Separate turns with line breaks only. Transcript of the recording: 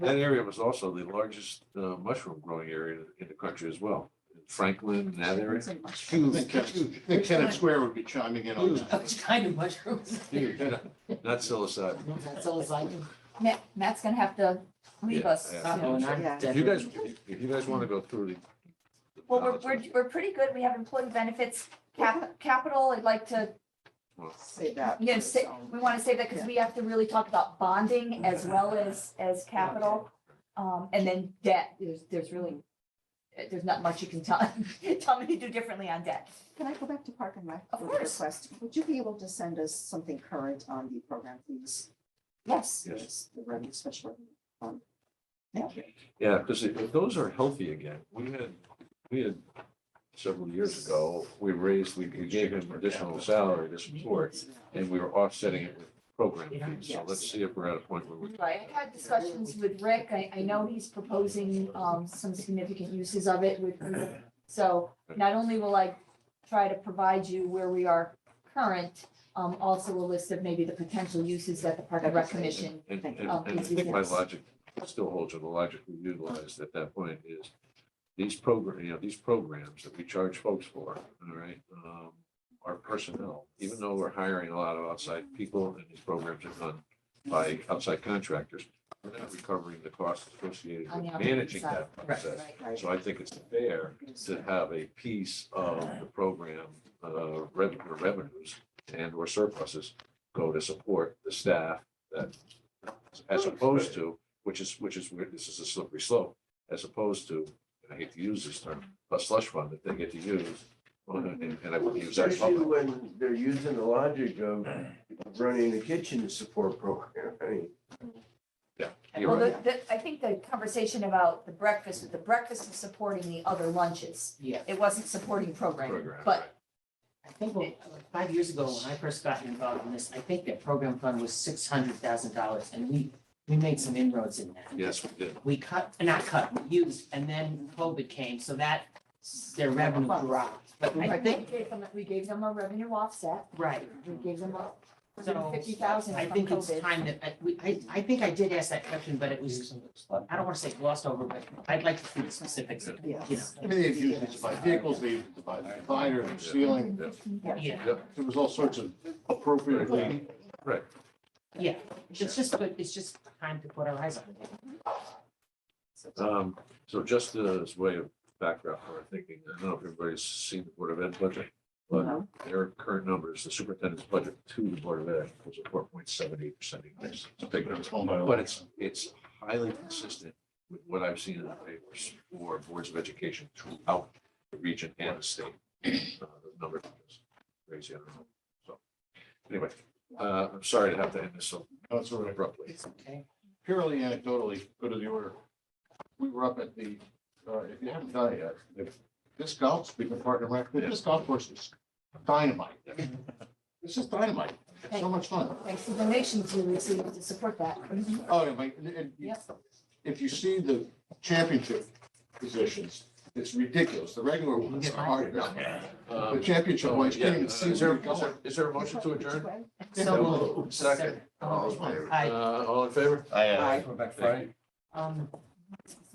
That area was also the largest uh, mushroom growing area in the country as well. Franklin, that area.
I
Huge,
think Kenneth-
huge,
I think Kenneth Square would be chiming in on
Those
that.
kind of mushrooms.
huge. Not psilocybin.
That's all I can.
Matt, Matt's gonna have to leave
Yeah,
us.
yeah.
soon.
Yeah. If you guys, if you guys want to go through the.
Well, we're, we're, we're pretty good. We have employee benefits, cap, capital. I'd like to,
Say that.
you know, say, we want to say that because we have to really talk about bonding as well as, as capital. Um, and then debt, there's, there's really, eh, there's not much you can tell, tell me to do differently on debt.
Can I go back to Park and Rec?
Of
with a
course.
Request, would you be able to send us something current on the program fees?
Yes.
Yes.
Yes, The revenue special. Um,
Yeah, because those are healthy again. We had, we had several years ago, we raised, we we gave him additional salary this support. And we were offsetting it with program fees. So let's see if we're at a point where we.
Right, I've had discussions with Rick. I, I know he's proposing, um, some significant uses of it with, so not only will I try to provide you where we are current, um, also a list of maybe the potential uses that the Park and Rec Commission.
And, and, and I think my logic still holds, or the logic we utilized at that point is these program, you know, these programs that we charge folks for, all right, um, are personnel, even though we're hiring a lot of outside people and these programs are done by outside contractors, we're not recovering the costs associated
On
with
the operating
managing
side.
that process.
Right.
So I think it's fair to have a piece of the program, uh, revenue, revenues and or surpluses go to support the staff that, as opposed to, which is, which is, where this is a slippery slope, as opposed to, and I hate to use this term, a slush fund that they get to use. uh, And and I wouldn't use that.
Especially
publicly.
when they're using the logic of running the kitchen support program. I mean,
You're
Well,
right.
the, the, I think the conversation about the breakfast, the breakfast was supporting the other lunches.
Yeah,
It wasn't supporting programming,
Program,
but
right.
I think when- like five years ago, when I first got involved in this, I think that program fund was six hundred thousand dollars and we, we made some inroads in that.
Yes, we did.
We cut, not cut, we used, and then COVID came, so that, their revenue dropped. But I
Right, we
think,
gave them, we gave them a revenue offset.
right,
We gave them a
so
fifty thousand
I
from
think it's
COVID.
time that, I- we, I, I think I did ask that question, but it was, I don't want to say glossed over, but I'd like to see the specifics.
Yes.
I mean, they've used it to buy vehicles, they used it to buy the divider, the ceiling,
Yeah.
there was all sorts of appropriately.
Yeah, it's just, good. it's just time to put our eyes on it.
Um, so just as way of background for our thinking, I don't know if everybody's seen the Board of Ed budget, but
No.
their current numbers, the superintendent's budget to the Board of Ed was a four point seven eight percent increase. It's a big number, but it's, it's highly consistent with what I've seen in the papers for boards of education throughout the region and the state. Uh, The number is crazy, I don't know. So, anyway, uh, I'm sorry to have to end this so
That's all right.
abruptly.
Okay.
purely anecdotally, go to the order. We were up at the, uh, if you haven't done it yet, the- this golf, speaking of partner rec, this golf course is dynamite. This is dynamite. It's so much fun.
Thanks to donations we received to support that.
Oh, yeah, like, and- and
Yes.
if you see the championship positions, it's ridiculous. The regular ones are hard enough. The
Um,
championship ones, you can't even
yeah,
see
Is there,
where
is there-
you're
is there a motion to adjourn?
So.
Oh,
Second.
I,
Uh, all in favor?
I, uh,
Right.
um.